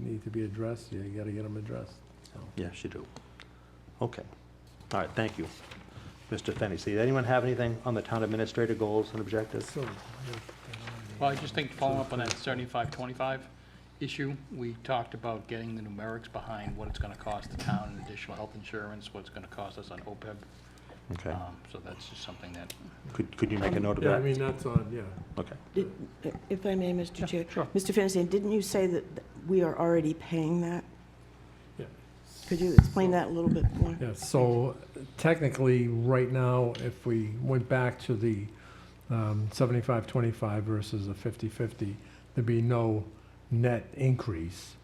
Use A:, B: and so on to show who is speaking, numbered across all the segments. A: need to be addressed, you gotta get them addressed, so.
B: Yes, you do. Okay. All right, thank you, Mr. Fenny. See, anyone have anything on the town administrator goals and objectives?
A: So,
C: Well, I just think following up on that seventy-five, twenty-five issue, we talked about getting the numerics behind what it's gonna cost the town in additional health insurance, what it's gonna cost us on OPEB.
B: Okay.
C: Um, So that's just something that,
B: Could, could you make a note of
A: Yeah, I
B: that?
A: mean, that's on, yeah.
B: Okay.
D: Did- If I may, Mr. Chair.
C: sure.
D: Mr. Fennessey, didn't you say that th- we are already paying that?
A: Yeah.
D: Could you explain that a little bit more?
A: Yeah, so technically, right now, if we went back to the um, 75-25 versus a 50-50, there'd be no net increase.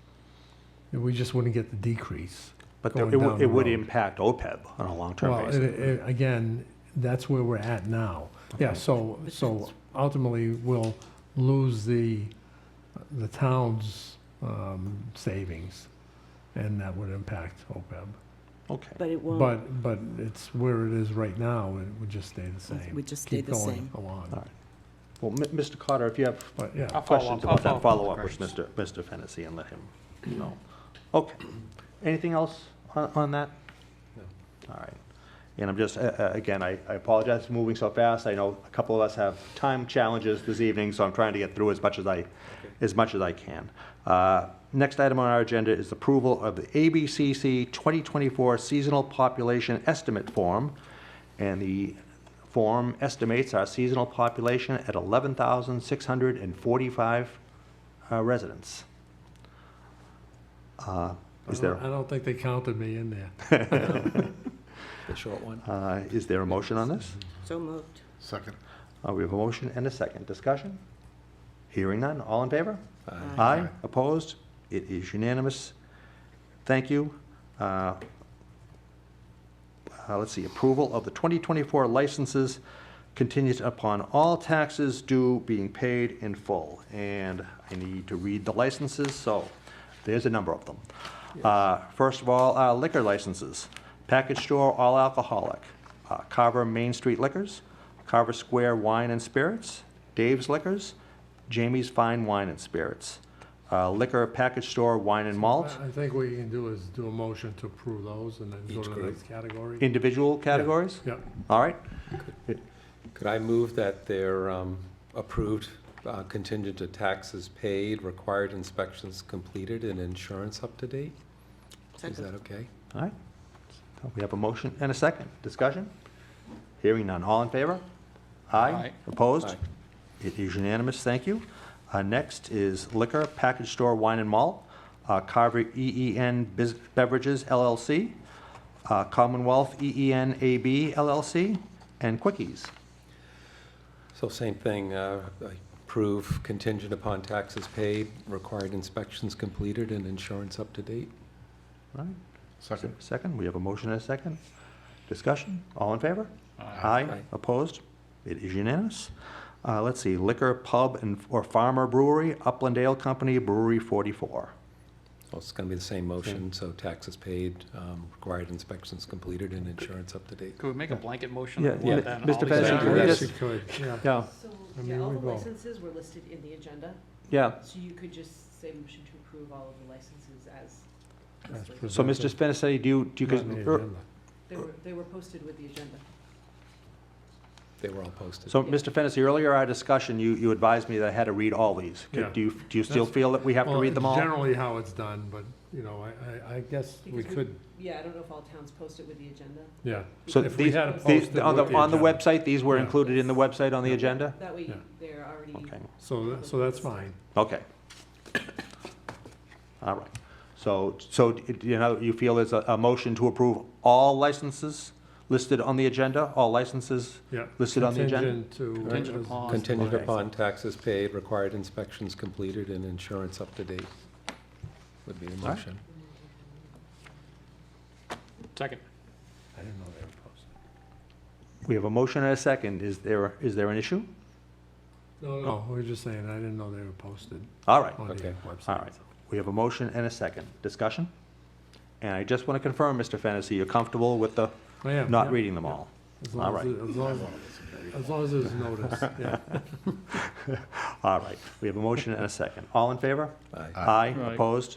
A: We just wouldn't get the decrease.
B: But there-
A: Going
B: it would,
A: down
B: it
A: the
B: would
A: road.
B: impact OPEB on a long-term
A: Well, it-
B: basis.
A: it- again, that's where we're at now. Yeah, so, so ultimately, we'll lose the, the town's um, savings, and that would impact OPEB.
B: Okay.
D: But it won't,
A: But, but it's where it is right now, it would just stay the same.
D: It would just stay the same.
A: Keep going
B: All
A: along,
B: right. Oh, Well, M- Mr. Carter, if you have
A: but yeah.
C: I'll follow
B: questions
C: up- I'll
B: about that, follow up
C: up
B: with
C: with
B: Mr. Mr. Fennessy and let him know. Okay. Anything else on, on that? No. All right. And I'm just, uh, uh, again, I I apologize for moving so fast. I know a couple of us have time challenges this evening, so I'm trying to get through as much as I, as much as I can. Uh, Next item on our agenda is approval of the ABCC 2024 Seasonal Population Estimate Form. And the form estimates our seasonal population at 11,645 uh, residents. Uh, Is
A: I
B: there,
A: don't- I don't think they counted me in there.
C: the short one.
B: uh, is there a motion on this?
D: so moved.
E: Second.
B: Uh, We have a motion and a second. Discussion? Hearing none. All in favor?
D: Aye.
B: Aye. Opposed? It is unanimous. Thank you. Uh, uh, Let's see, approval of the 2024 licenses contingent upon all taxes due being paid in full. And I need to read the licenses, so there's a number of them. Uh, First of all, uh, liquor licenses. Package store, all alcoholic. Uh, Carver Main Street Liquors, Carver Square Wine and Spirits, Dave's Liquors, Jamie's Fine Wine and Spirits. Uh, Liquor Package Store, Wine and Malt,
A: I I think what you can do is do a motion to approve those and then go to the next category.
B: individual categories?
A: Yep,
B: All right,
F: Could I move that they're um, approved uh, contingent to taxes paid, required inspections completed, and insurance up to date? Is that
D: Second.
F: okay?
B: all right. We have a motion and a second. Discussion? Hearing none. All in favor? Aye.
C: Aye.
B: Opposed?
F: Aye.
B: It is unanimous, thank you. Uh, Next is Liquor Package Store Wine and Malt, uh, Carver EEN Bus- Beverages LLC, uh, Commonwealth E EEN AB LLC, and Quickies.
F: So same thing, uh, approve contingent upon taxes paid, required inspections completed, and insurance up to date?
B: All right.
E: Second.
B: Second, we have a motion and a second. Discussion, all in favor? Aye.
F: Aye.
B: Opposed? It is unanimous. Uh, Let's see, liquor pub and, or farmer brewery, Upland Ale Company Brewery 44.
F: Well, it's going to be the same motion, so taxes paid, um, required inspections completed, and insurance up to date.
C: Could we make a blanket motion?
B: Yeah,
C: on
B: yeah.
C: that,
B: Mr.
C: all these
B: Benson,
A: Yeah,
B: can we
C: items?
A: yes,
B: just-
A: you could, yeah.
B: Yeah,
G: So,
A: I mean,
G: yeah, all
A: we
G: the
A: will.
G: licenses were listed in the agenda,
B: yeah.
G: so you could just say motion to approve all of the licenses as
A: As
G: listed.
B: So, Mr. Spinaceti, do you, do you,
A: Not on the
B: cons- er,
A: agenda.
G: They were, they were posted with the agenda.
F: They were all posted.
B: so, Mr. Fennessey, earlier our discussion, you, you advised me that I had to read all these.
A: Yeah.
B: Could- Do you, do you still
A: That's-
B: feel that we have to
A: Well,
B: read them all?
A: Generally how it's done, but, you know, I- I, I guess we
G: Because we-
A: could,
G: Yeah, I don't know if all towns post it with the agenda.
A: yeah.
B: So
A: If we
B: these-
A: had it
B: these-
A: posted
B: on the,
A: with
B: on the
A: agenda.
B: website, these were
A: Yeah.
B: included in the website on the agenda?
G: That way
A: Yeah.
G: they're already.
B: Okay.
A: So, tha- so that's fine.
B: Okay. All right. So, so, d- you know, you feel there's a, a motion to approve all licenses listed on the agenda? All licenses
A: Yeah.
B: listed on the agenda?
A: Contingent to.
C: Contingent upon-
F: Contingent
B: Okay.
F: upon taxes paid, required inspections completed, and insurance up to date would be the
B: right.
F: motion.
C: Second.
A: I didn't know they were posted.
B: We have a motion and a second. Is there, is there an issue?
A: No, no, we we're just saying, I didn't know they were posted
B: All Oh. right.
A: on the
F: Okay.
A: website.
B: All right, we have a motion and a second. Discussion? And I just want to confirm, Mr. Fennessy, you're comfortable with the,
A: I am,
B: not
A: yeah.
B: reading them all?
A: As long
B: All
A: as
B: right.
A: it- As long as, as long as there's notice, yeah.
B: All right, we have a motion and a second. All in favor?
F: Aye.
B: Aye,
C: Aye.
B: opposed?